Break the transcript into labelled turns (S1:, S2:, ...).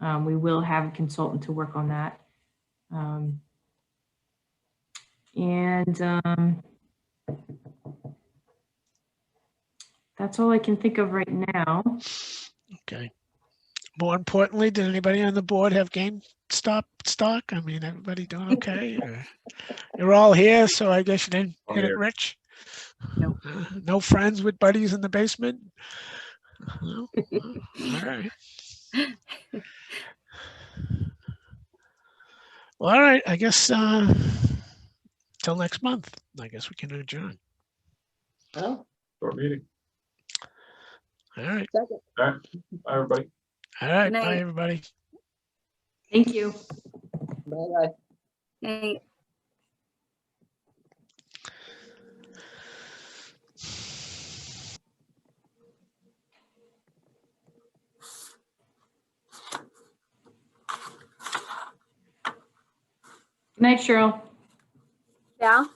S1: Um, we will have a consultant to work on that. Um, and, um, that's all I can think of right now.
S2: Okay. More importantly, did anybody on the board have GameStop stock? I mean, everybody doing okay? or- You're all here, so I guess you didn't
S3: All
S2: get it
S3: here.
S2: rich?
S1: Nope.
S2: Uh, No friends with buddies in the basement? No? Oh, All right. Well, all right, I guess, uh, till next month, I guess we can adjourn.
S4: Well,
S3: Short meeting.
S2: All right,
S4: second.
S3: All right. Bye, everybody.
S2: all right,
S5: night.
S2: bye, everybody.
S1: Thank you.
S4: Bye-bye.
S5: Hey,
S1: Good night, Cheryl.
S5: yeah?